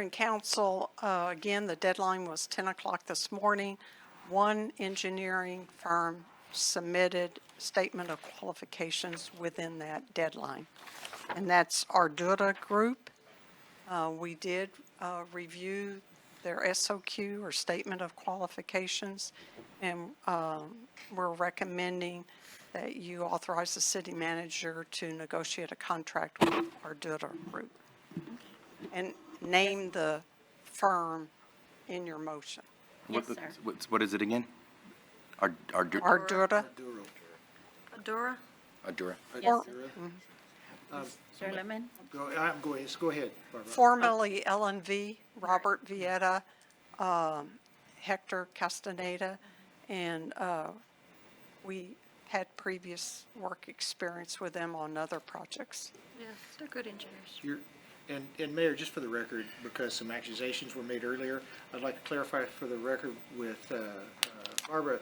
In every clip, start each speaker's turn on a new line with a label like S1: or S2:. S1: In council, uh, again, the deadline was 10 o'clock this morning. One engineering firm submitted statement of qualifications within that deadline, and that's Ardua Group. Uh, We did uh, review their SOQ, or Statement of Qualifications, and um, we're recommending that you authorize the city manager to negotiate a contract with Ardua Group and name the firm in your motion.
S2: What
S3: Yes,
S2: the-
S3: sir.
S2: what's- What is it again? Ar- Ardu-
S1: Ardura,
S4: uh,
S3: Adora?
S2: Ardura.
S3: Yes.
S4: Um,
S3: Mr. Lemon?
S4: Go, I'm going, yes, go ahead, Barbara.
S1: formerly L and V, Robert Vieta, um, Hector Castaneda, and uh, we had previous work experience with them on other projects.
S3: Yes, they're good engineers.
S4: You're- And, and Mayor, just for the record, because some accusations were made earlier, I'd like to clarify for the record with uh, uh, Barbara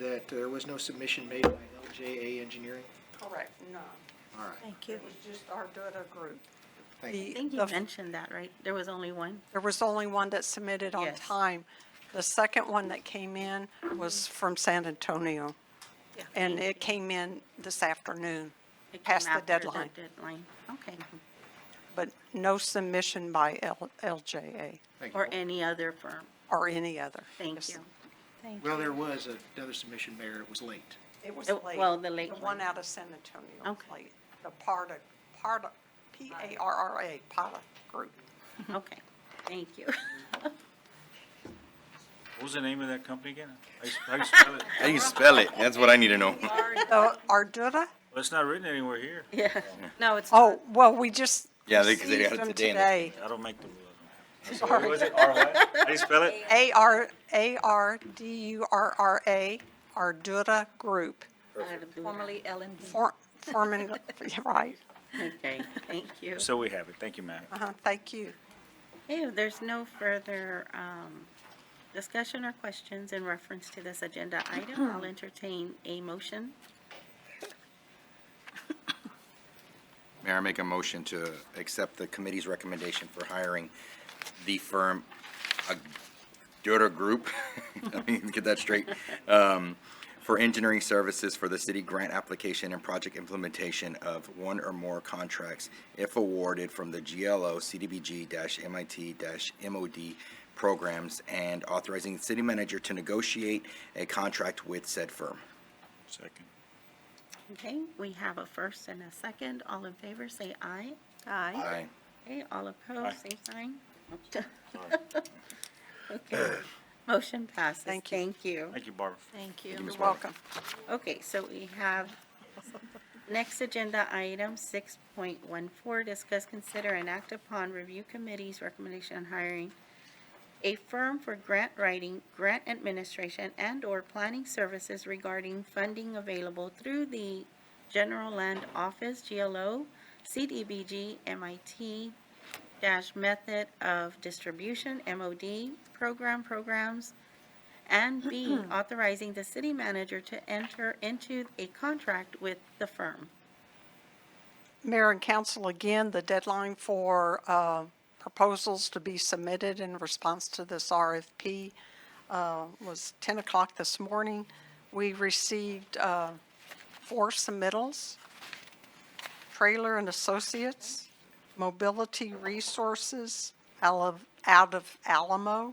S4: that there was no submission made by LJA Engineering?
S1: Correct, no.
S4: All right,
S3: Thank you.
S1: It was just Ardura Group.
S4: thank you.
S3: I think you mentioned that, right? There was only one?
S1: There was only one that submitted on
S3: Yes.
S1: time. The second one that came in was from San Antonio.
S3: Yeah.
S1: And it came in this afternoon,
S3: It came
S1: past the
S3: after
S1: deadline,
S3: Deadline, Mm-hmm. okay.
S1: but no submission by L- LJA
S4: Thank you.
S3: Or any other firm.
S1: or any other.
S3: Thank
S1: Yes.
S3: you. Thank
S4: Well,
S3: you.
S4: there was another submission, Mayor, it was late.
S1: It was
S3: It-
S1: late.
S3: well, the late
S1: The one
S3: one.
S1: out of San Antonio. was
S3: Okay.
S1: late. The Parda, Parda, P-A-R-R-A, Parda Group.
S3: Okay, thank you.
S5: What was the name of that company again? How you- How you spell it?
S2: How do you spell it? That's what I need to know.
S1: So Ardua,
S5: Well, it's not written anywhere here.
S3: Yeah, no, it's.
S1: oh, well, we just.
S2: Yeah, they- 'cause they
S1: received
S2: got it
S1: them
S2: today and they-
S1: today.
S5: I don't make the rules. So what was it? R what? How do you spell it?
S1: A-R, A-R-D-U-R-R-A, Ardua Group.
S3: Formally L and D.
S1: For- Foreman, yeah, right,
S3: Okay, thank you.
S5: So we have it. Thank you, Matt.
S1: uh-huh, thank you.
S3: Okay, If there's no further um, discussion or questions in reference to this agenda item, I'll entertain a motion.
S2: Mayor, I make a motion to accept the committee's recommendation for hiring the firm Ardura Group, let me get that straight, um, for engineering services for the city grant application and project implementation of one or more contracts if awarded from the GLO CDBG-MIT-MOD programs and authorizing the city manager to negotiate a contract with said firm.
S5: Second.
S3: Okay, we have a first and a second. All in favor, say aye.
S2: Aye.
S3: Okay, all
S5: Aye.
S3: opposed, same sign. Okay, motion passes.
S1: Thank you.
S3: Thank you.
S5: Thank you, Barbara.
S3: Thank you.
S1: You're welcome.
S3: Okay, so we have next agenda item six point one four, discuss, consider, and act upon review committee's recommendation on hiring a firm for grant writing, grant administration, and/or planning services regarding funding available through the General Land Office, GLO, CDBG, MIT, dash method of distribution, MOD, program, programs, and B, authorizing the city manager to enter into a contract with the firm.
S1: Mayor and council, again, the deadline for uh, proposals to be submitted in response to this RFP uh, was 10 o'clock this morning. We received uh, four submittals, Trailer and Associates, Mobility Resources out of- out of Alamo,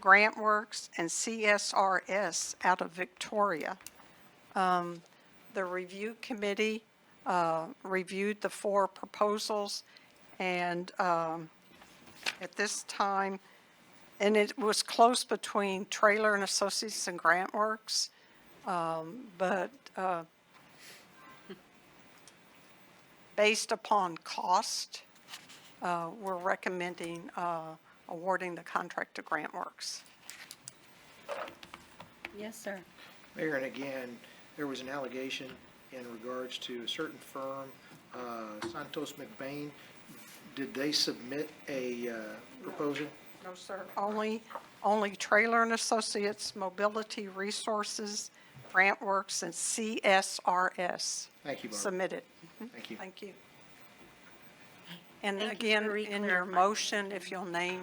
S1: Grant Works, and CSRS out of Victoria. Um, The review committee uh, reviewed the four proposals, and um, at this time, and it was close between Trailer and Associates and Grant Works, um, but uh, based upon cost, uh, we're recommending uh, awarding the contract to Grant Works.
S3: Yes, sir.
S4: Mayor, and again, there was an allegation in regards to a certain firm, uh, Santos McBain. Did they submit a uh, proposal?
S1: No, sir. Only, only Trailer and Associates, Mobility Resources, Grant Works, and CSRS
S4: Thank you, Barbara.
S1: submitted.
S4: Thank you.
S1: Thank you. And
S3: Thank you
S1: again,
S3: for
S1: in your
S3: re-clarifying.
S1: motion, if you'll name